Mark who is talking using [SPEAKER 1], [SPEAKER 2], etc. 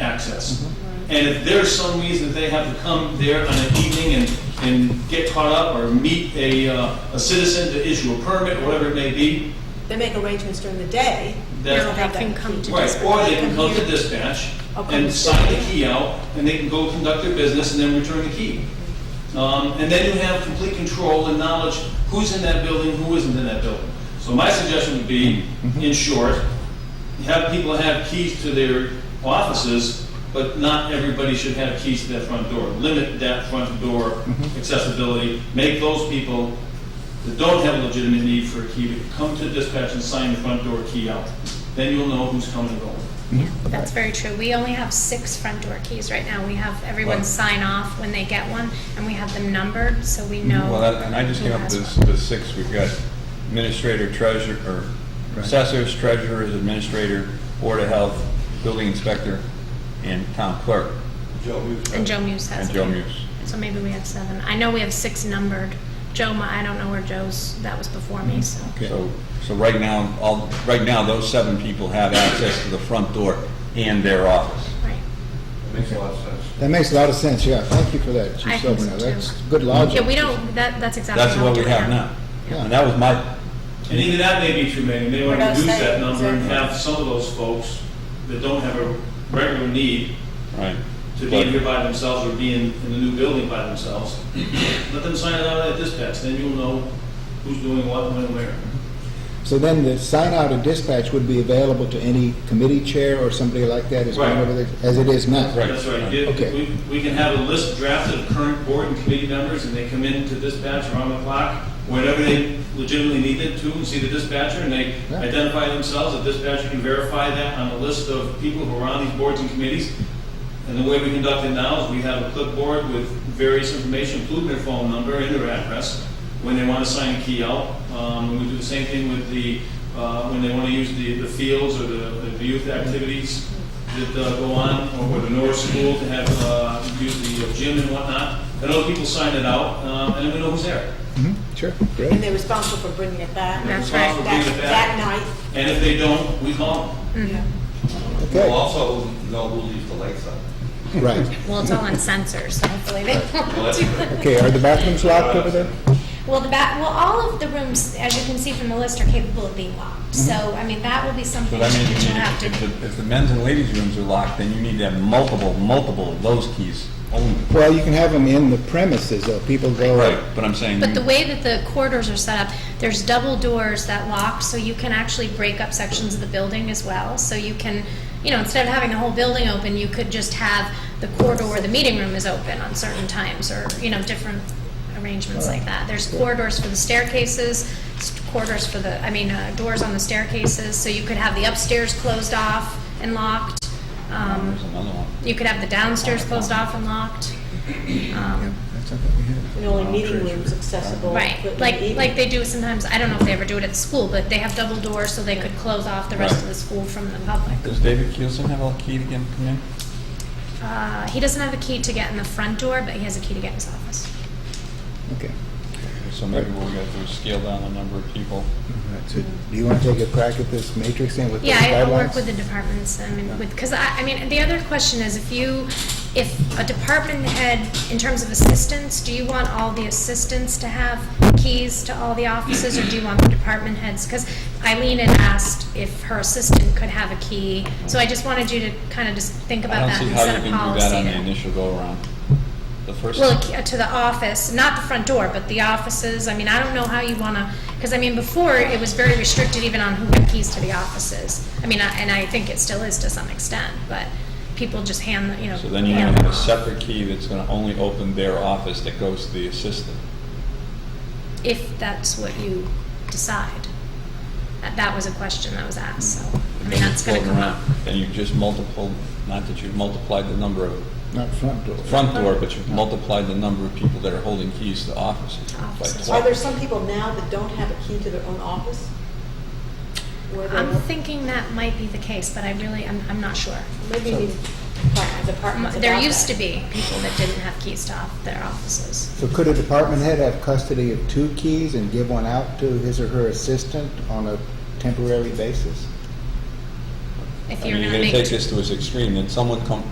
[SPEAKER 1] access. And if there's some reason that they have to come there on an evening and, and get caught up or meet a, uh, a citizen to issue a permit, or whatever it may be,
[SPEAKER 2] They make arrangements during the day. They
[SPEAKER 1] That's-
[SPEAKER 2] don't have
[SPEAKER 3] They can
[SPEAKER 2] that
[SPEAKER 3] come
[SPEAKER 2] key.
[SPEAKER 3] to
[SPEAKER 1] Right,
[SPEAKER 3] dispatch.
[SPEAKER 1] or they can come to dispatch
[SPEAKER 2] I'll come
[SPEAKER 1] and
[SPEAKER 2] to
[SPEAKER 1] sign the
[SPEAKER 2] dispatch.
[SPEAKER 1] key out, and they can go conduct their business and then return the key. Um, and then you have complete control and knowledge who's in that building, who isn't in that building. So my suggestion would be, in short, you have people have keys to their offices, but not everybody should have keys to that front door. Limit that front door accessibility, make those people that don't have a legitimate need for a key to come to dispatch and sign the front door key out. Then you'll know who's coming and going.
[SPEAKER 3] That's very true. We only have six front door keys right now. We have everyone
[SPEAKER 4] Right.
[SPEAKER 3] sign off when they get one, and we have them numbered, so we know.
[SPEAKER 4] Well, that- and I just
[SPEAKER 3] who
[SPEAKER 4] came up
[SPEAKER 3] has
[SPEAKER 4] with
[SPEAKER 3] one.
[SPEAKER 4] the six, we've got administrator, treasurer, or assessors, treasurers, administrator, board of health, building inspector, and town clerk,
[SPEAKER 5] Joe Hughes.
[SPEAKER 3] And Joe Muse has
[SPEAKER 4] and
[SPEAKER 3] it.
[SPEAKER 4] Joe Muse.
[SPEAKER 3] So maybe we have seven. I know we have six numbered. Joe, mi- I don't know where Joe's, that was before me, so.
[SPEAKER 4] So, so right now, all, right now, those seven people have access to the front door and their office.
[SPEAKER 3] Right.
[SPEAKER 5] Makes a lot of sense.
[SPEAKER 6] That makes a lot of sense, yeah. Thank you for that,
[SPEAKER 3] I
[SPEAKER 6] Chief
[SPEAKER 3] think
[SPEAKER 6] Silvernail.
[SPEAKER 3] so, too.
[SPEAKER 6] That's good logic.
[SPEAKER 3] Yeah, we don't, that, that's exactly.
[SPEAKER 4] That's
[SPEAKER 3] how
[SPEAKER 4] what
[SPEAKER 3] do
[SPEAKER 4] we
[SPEAKER 3] it
[SPEAKER 4] have now. And that was my,
[SPEAKER 1] And even that may be too many, they want to
[SPEAKER 2] We're not
[SPEAKER 1] reduce that
[SPEAKER 2] saying,
[SPEAKER 1] number and
[SPEAKER 2] exactly.
[SPEAKER 1] have some of those folks that don't have a regular need
[SPEAKER 4] right.
[SPEAKER 1] to be
[SPEAKER 4] But-
[SPEAKER 1] here by themselves or be in, in the new building by themselves, let them sign it out at dispatch, then you'll know who's doing what, when, where.
[SPEAKER 6] So then the sign out and dispatch would be available to any committee chair or somebody like that as
[SPEAKER 1] Right.
[SPEAKER 6] whenever they, as it is now?
[SPEAKER 4] Right.
[SPEAKER 1] That's right, You-
[SPEAKER 6] Okay.
[SPEAKER 1] we, we can have a list drafted of current board and committee members, and they come in to dispatch around the clock, whenever they legitimately need it to, and see the dispatcher, and they
[SPEAKER 6] Yeah.
[SPEAKER 1] identify themselves, the dispatcher can verify that on a list of people who are on these boards and committees. And the way we conduct it now is we have a clipboard with various information, including their phone number and their address, when they want to sign a key out. Um, we do the same thing with the, uh, when they want to use the, the fields or the, the youth activities that uh, go on, or with the North School to have, uh, use the gym and whatnot. And other people sign it out, um, and then we know who's there.
[SPEAKER 6] Sure,
[SPEAKER 2] And
[SPEAKER 6] great.
[SPEAKER 2] they're responsible for bringing it back.
[SPEAKER 3] That's
[SPEAKER 1] It's possible
[SPEAKER 3] right.
[SPEAKER 1] to bring
[SPEAKER 2] That,
[SPEAKER 1] it
[SPEAKER 2] that
[SPEAKER 1] back.
[SPEAKER 2] night.
[SPEAKER 1] And if they don't, we call them.
[SPEAKER 5] We'll
[SPEAKER 6] Okay,
[SPEAKER 5] also know who leaves the lights on.
[SPEAKER 6] right.
[SPEAKER 3] Well, it's all on sensors, so hopefully they
[SPEAKER 5] Well,
[SPEAKER 3] won't
[SPEAKER 5] that's
[SPEAKER 3] do
[SPEAKER 5] good.
[SPEAKER 3] that.
[SPEAKER 6] Okay, are the bathrooms locked over there?
[SPEAKER 3] Well, the back, well, all of the rooms, as you can see from the list, are capable of being locked. So, I mean, that will be something
[SPEAKER 4] Mm-hmm. But I
[SPEAKER 3] that
[SPEAKER 4] mean, you
[SPEAKER 3] you'll have
[SPEAKER 4] need,
[SPEAKER 3] to.
[SPEAKER 4] if the, if the men's and ladies' rooms are locked, then you need to have multiple, multiple of those keys only.
[SPEAKER 6] Well, you can have them in the premises, though. People go.
[SPEAKER 4] Right, but I'm saying.
[SPEAKER 3] But the way that the corridors are set up, there's double doors that lock, so you can actually break up sections of the building as well. So you can, you know, instead of having the whole building open, you could just have the corridor where the meeting room is open on certain times, or, you know, different arrangements like that. There's corridors for the staircases, s- corridors for the, I mean, uh, doors on the staircases, so you could have the upstairs closed off and locked. Um,
[SPEAKER 4] There's another one.
[SPEAKER 3] You could have the downstairs closed off and locked. Um,
[SPEAKER 6] That's what we have.
[SPEAKER 2] And
[SPEAKER 1] Oh,
[SPEAKER 2] only meeting rooms accessible.
[SPEAKER 3] Right,
[SPEAKER 2] but
[SPEAKER 3] like,
[SPEAKER 2] evening.
[SPEAKER 3] like they do sometimes, I don't know if they ever do it at the school, but they have double doors so they could close off the rest of
[SPEAKER 4] Right.
[SPEAKER 3] the school from the public.
[SPEAKER 4] Does David Keelson have a key to get him in?
[SPEAKER 3] Uh, he doesn't have a key to get in the front door, but he has a key to get in his office.
[SPEAKER 6] Okay.
[SPEAKER 4] So maybe what we gotta do is scale down the number of people.
[SPEAKER 6] All right, so do you want to take a crack at this matrix thing with the
[SPEAKER 3] Yeah,
[SPEAKER 6] guidelines?
[SPEAKER 3] I- I'll work with the departments, I mean, with, because I, I mean, the other question is if you, if a department head, in terms of assistants, do you want all the assistants to have keys to all the offices, or do you want the department heads? Because Eileen had asked if her assistant could have a key, so I just wanted you to kind of just think
[SPEAKER 4] I
[SPEAKER 3] about
[SPEAKER 4] don't
[SPEAKER 3] that
[SPEAKER 4] see
[SPEAKER 3] and
[SPEAKER 4] how
[SPEAKER 3] set
[SPEAKER 4] you
[SPEAKER 3] a
[SPEAKER 4] can do that on the
[SPEAKER 3] policy.
[SPEAKER 4] initial go-around. The first.
[SPEAKER 3] Well, uh, to the office, not the front door, but the offices, I mean, I don't know how you want to, because I mean, before, it was very restricted even on who had keys to the offices. I mean, I- and I think it still is to some extent, but people just hand, the- you know.
[SPEAKER 4] So then you're
[SPEAKER 3] hand
[SPEAKER 4] gonna have
[SPEAKER 3] them
[SPEAKER 4] a
[SPEAKER 3] off.
[SPEAKER 4] separate key that's gonna only open their office that goes to the assistant.
[SPEAKER 3] If that's what you decide. That- That was a question that was asked, so, I
[SPEAKER 4] And
[SPEAKER 3] mean,
[SPEAKER 4] then
[SPEAKER 3] that's
[SPEAKER 4] it's
[SPEAKER 3] going to
[SPEAKER 4] floating
[SPEAKER 3] come up.
[SPEAKER 4] around. And you just multiple, not that you've multiplied the number of,
[SPEAKER 6] Not front door.
[SPEAKER 4] front door, but you've multiplied the number of people that are holding keys to offices. by
[SPEAKER 3] Offices.
[SPEAKER 2] Are there
[SPEAKER 4] 12.
[SPEAKER 2] some people now that don't have a key to their own office? Where they-
[SPEAKER 3] I'm thinking that might be the case, but I really, I'm, I'm not sure.
[SPEAKER 2] Maybe you need to talk to the departments
[SPEAKER 3] There
[SPEAKER 2] about
[SPEAKER 3] used
[SPEAKER 2] that.
[SPEAKER 3] to be people that didn't have keys to off- their offices.
[SPEAKER 6] So could a department head have custody of two keys and give one out to his or her assistant on a temporary basis?
[SPEAKER 3] If
[SPEAKER 4] I
[SPEAKER 3] you're
[SPEAKER 4] mean,
[SPEAKER 3] gonna
[SPEAKER 4] you're
[SPEAKER 3] make.
[SPEAKER 4] gonna take this to its extreme, then someone come,